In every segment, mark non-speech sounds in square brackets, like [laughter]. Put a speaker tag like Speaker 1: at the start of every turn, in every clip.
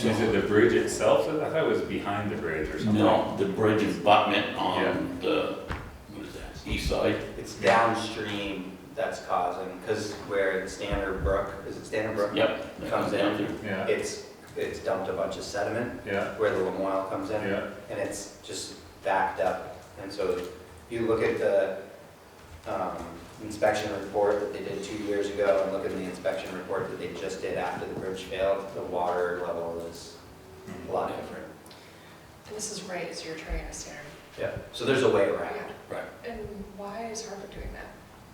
Speaker 1: And Is it the bridge itself? I thought it was behind the bridge or something.
Speaker 2: No, the bridge abutment on
Speaker 1: Yeah.
Speaker 2: the, what is that, east side?
Speaker 3: It's downstream that's causing, because where the Standard Brook, is it Standard Brook?
Speaker 2: Yep. that
Speaker 3: Comes
Speaker 2: down
Speaker 3: in.
Speaker 2: through.
Speaker 1: Yeah,
Speaker 3: It's, it's dumped a bunch of sediment
Speaker 1: yeah,
Speaker 3: where the lamoille comes in.
Speaker 1: yeah.
Speaker 3: and it's just backed up. And so you look at the um, inspection report that they did two years ago, and look at the inspection report that they just did after the bridge failed, the water level is a lot different.
Speaker 4: This is right as you're trying to stare.
Speaker 3: Yeah, so there's a way around.
Speaker 2: Right,
Speaker 4: And why is Harvard doing that?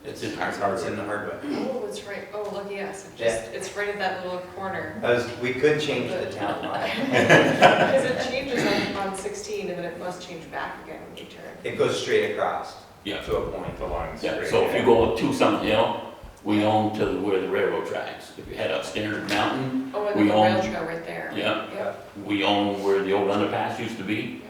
Speaker 2: it's in Hartford.
Speaker 3: It's in the hardwood.
Speaker 4: Oh, it's right, oh, lucky us, it just, it's right at that little
Speaker 2: [laughs]
Speaker 4: corner.
Speaker 3: I was, we could change the town line.
Speaker 4: Because it changes on, on sixteen, and then it must change back again when you turn.
Speaker 3: It goes straight across
Speaker 2: Yeah,
Speaker 3: to a point.
Speaker 1: The line's
Speaker 2: yeah,
Speaker 1: straight,
Speaker 2: so if
Speaker 1: yeah.
Speaker 2: you go up to something hill, we own to where the railroad tracks. If you head up Standard Mountain,
Speaker 4: Oh, and
Speaker 2: We
Speaker 4: the rail
Speaker 2: own-
Speaker 4: trail right there.
Speaker 2: yeah,
Speaker 4: Yep.
Speaker 2: we own where the old underpass used to be.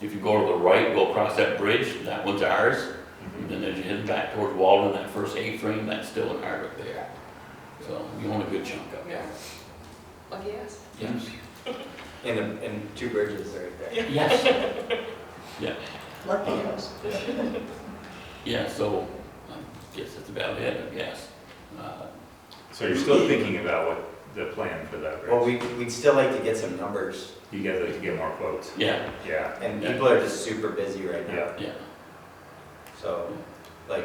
Speaker 2: If you go to the right, go across that bridge, that one's ours.
Speaker 1: Mhm.
Speaker 2: Then as you head back towards Walden, that first A-frame, that's still in Hardwick there. So we own a good chunk up there.
Speaker 4: Yeah. Lucky us.
Speaker 2: Yes,
Speaker 3: And, the- and two bridges right there.
Speaker 2: yes,
Speaker 3: Lucky us.
Speaker 2: yeah, so I guess that's about it, I guess. Uh,
Speaker 1: So you're still thinking about what the plan for that
Speaker 3: Well,
Speaker 1: bridge?
Speaker 3: we, we'd still like to get some numbers,
Speaker 1: You guys like to get more quotes?
Speaker 2: Yeah,
Speaker 1: Yeah,
Speaker 3: and people are just super busy right now.
Speaker 1: yeah.
Speaker 2: yeah,
Speaker 3: So, like,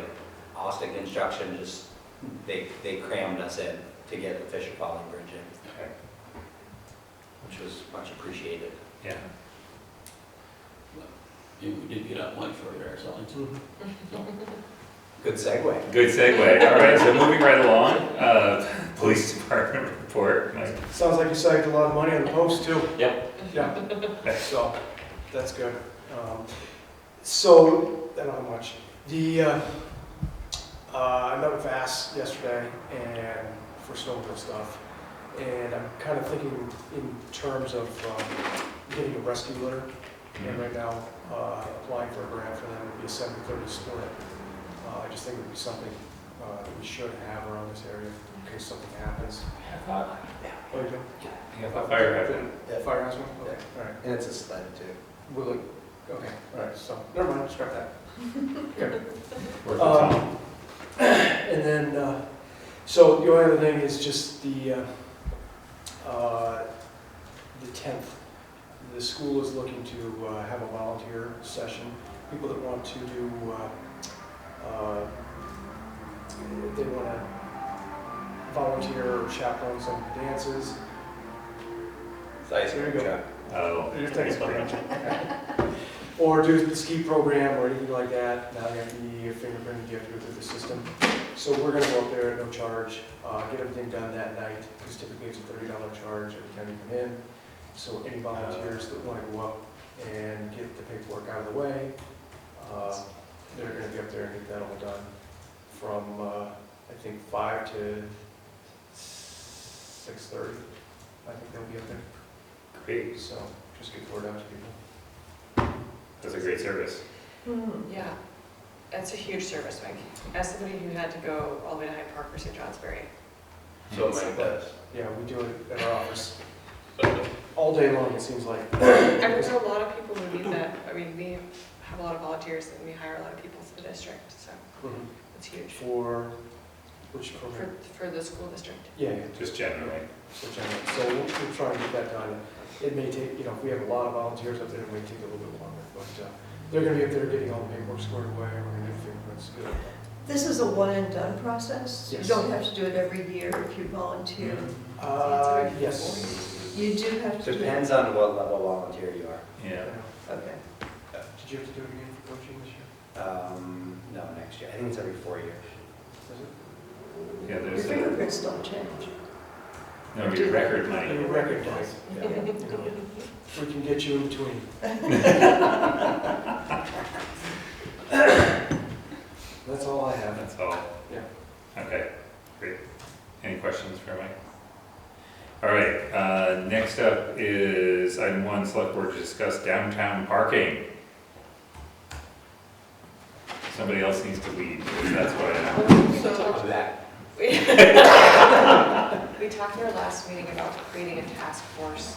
Speaker 3: Austin Construction just, they, they crammed us in to get the Fisher Polly Bridge in,
Speaker 1: Okay.
Speaker 3: which was much appreciated.
Speaker 1: Yeah.
Speaker 2: Yeah, we did get out one for it ourselves.
Speaker 3: Good segue.
Speaker 1: Good segue. All right, so moving right along, uh, [laughs] police department report. Mike.
Speaker 5: Sounds like you saved a lot of money on the post too.
Speaker 2: Yep.
Speaker 5: Yeah, so, that's good. Um, So, I don't have much. The, uh, uh, I met with Vass yesterday and for snowmobile stuff. And I'm kind of thinking in terms of um, getting a rescue litter.
Speaker 1: Mm-hmm.
Speaker 5: And right now, uh, applying for a grant for that would be a seven thirty split. Uh, I just think it would be something uh, that we should have around this area in case something happens. Oh, you do?
Speaker 1: Fire hydrant.
Speaker 5: Yeah, fire hazard, okay, all right.
Speaker 3: And it's a sled too.
Speaker 5: Will it, okay, all right, so, never mind, scrap that.
Speaker 1: Worth the time.
Speaker 5: Um, [clears throat] And then, uh, so the only other thing is just the, uh, uh, the 10th. The school is looking to uh, have a volunteer session, people that want to do, uh, uh, they want to volunteer or chaperone some dances.
Speaker 3: It's ice
Speaker 5: There you
Speaker 3: cream
Speaker 5: go.
Speaker 3: truck.
Speaker 1: Oh.
Speaker 5: Your text branch. Or do the ski program or anything like that, now you have to be fingerprinted, you have to go through the system. So we're gonna go up there at no charge, uh, get everything done that night, because typically it's a thirty dollar charge every time you come in. So any volunteers that wanna go up and get the paperwork out of the way, uh, they're gonna be up there and get that all done from, uh, I think five to six thirty. I think they'll be up there.
Speaker 1: Great.
Speaker 5: So just get the word out to people.
Speaker 1: That's a great service.
Speaker 4: Yeah, that's a huge service, Mike. As somebody who had to go all the way to Hyde Park for St. Johnsbury.
Speaker 3: So Mike does.
Speaker 5: Yeah, we do it at our office all day long, it seems like.
Speaker 4: And there's a lot of people who need that. I mean, we have a lot of volunteers and we hire a lot of people for the district, so it's huge.
Speaker 5: For which
Speaker 4: For,
Speaker 5: program?
Speaker 4: for the school district.
Speaker 5: Yeah, yeah,
Speaker 1: Just generally.
Speaker 5: so generally, so we'll, we'll try and get that done. It may take, you know, if we have a lot of volunteers up there, it may take a little bit longer, but uh, they're gonna be up there getting all the paperwork squared away, we're gonna get fingerprints. get it done.
Speaker 6: This is a one-and-done process?
Speaker 5: Yes.
Speaker 6: You don't have to do it every year if you volunteer?
Speaker 5: Uh, yes.
Speaker 6: You do have to do it?
Speaker 3: Depends on what level volunteer you are.
Speaker 1: Yeah.
Speaker 6: Okay.
Speaker 5: Did you have to do it again for coaching this year?
Speaker 3: Um, no, next year. I think it's every four years.
Speaker 5: Was it?
Speaker 1: Yeah,
Speaker 6: Your
Speaker 1: there's a,
Speaker 6: fingerprints don't change.
Speaker 1: no, your record money.
Speaker 5: Your record does.
Speaker 4: [laughs]
Speaker 3: Yeah.
Speaker 5: We can get you in between. That's all I have.
Speaker 1: That's all.
Speaker 5: Yeah.
Speaker 1: Okay, great. Any questions for Mike? All right, uh, next up is item one, select board to discuss downtown parking. Somebody else needs to lead, because that's what I
Speaker 4: So-
Speaker 3: I'll do that.
Speaker 4: [laughs] We we talked in our last meeting about creating a task force